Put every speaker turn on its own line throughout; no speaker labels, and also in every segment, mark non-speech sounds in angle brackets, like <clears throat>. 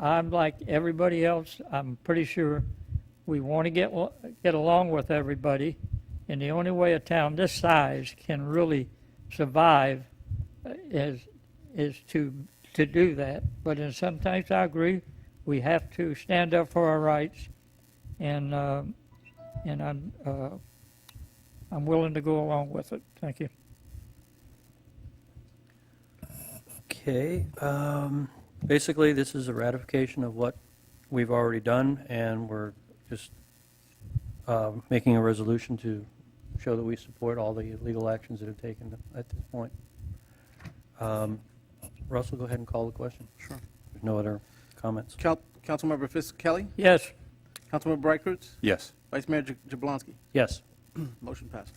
I'm like everybody else, I'm pretty sure we want to get, wa- get along with everybody. And the only way a town this size can really survive uh, is, is to, to do that. But in some things, I agree, we have to stand up for our rights. And, um, and I'm, uh, I'm willing to go along with it. Thank you.
Okay, um, basically, this is a ratification of what we've already done, and we're just um, making a resolution to show that we support all the legal actions that have taken at this point. Um, Russell, go ahead and call the question.
Sure.
There's no other comments.
Cal- Councilmember Fisk Kelly,
Yes,
Councilmember Bright Cruz,
Yes.
Vice Mayor Ja- <clears throat> Jablonski.
Yes.
Motion passes.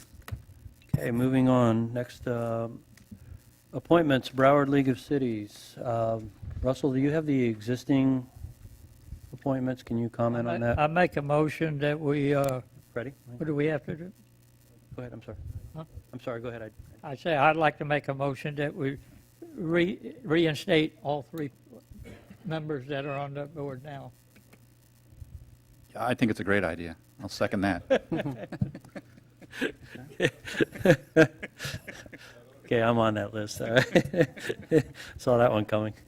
Okay, moving on. Next, um, appointments, Broward League of Cities. Um, Russell, do you have the existing appointments? Can you comment on
I
that?
I make a motion that we, uh,
Ready?
what do we have to do?
Go ahead, I'm sorry.
Huh?
I'm sorry, go ahead. I-
I say I'd like to make a motion that we re- reinstate all three members that are on the board now.
I think it's a great idea. I'll second that.
Okay, I'm on that list, all right. <laughs> Saw that one coming. <laughs>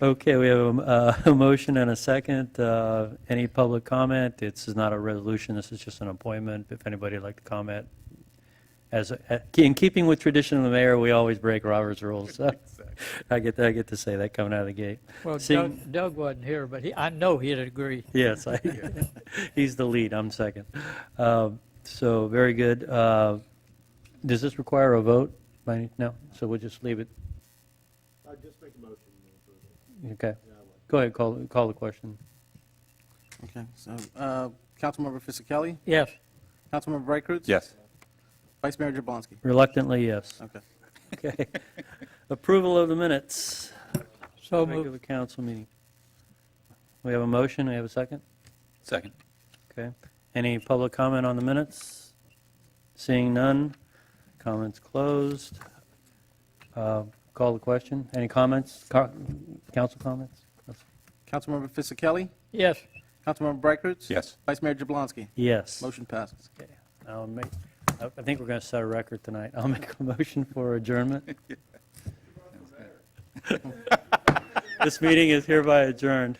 Okay, we have a, uh, a motion and a second. Uh, Any public comment? This is not a resolution, this is just an appointment. If anybody would like to comment, as, a- in keeping with tradition of the mayor, we always break Robert's rules. so I get, I get to say that coming out of the gate.
Well,
Seeing-
Doug, Doug wasn't here, but he, I know he'd agree.
Yes, I, <laughs> he's the lead, I'm second. Um, So, very good. Uh, Does this require a vote? by any- No, so we'll just leave it,
i just make a motion to approve it.
okay. Go ahead, call, call the question.
Okay, so, uh, Councilmember Fisk Kelly,
Yes,
Councilmember Bright Cruz.
Yes.
Vice Mayor Jablonski.
Reluctantly, yes.
Okay.
Okay. <laughs> Approval of the minutes,
so moved.
regular council meeting. We have a motion, we have a second?
Second.
Okay. Any public comment on the minutes? Seeing none, comments closed. Uh, Call the question. Any comments? Co- Council comments?
Councilmember Fisk Kelly,
Yes,
Councilmember Bright Cruz.
Yes.
Vice Mayor Jablonski.
Yes.
Motion passes.
Okay. I'll make, I I think we're going to set a record tonight. I'll <laughs> make a motion for adjournment. This meeting is hereby adjourned.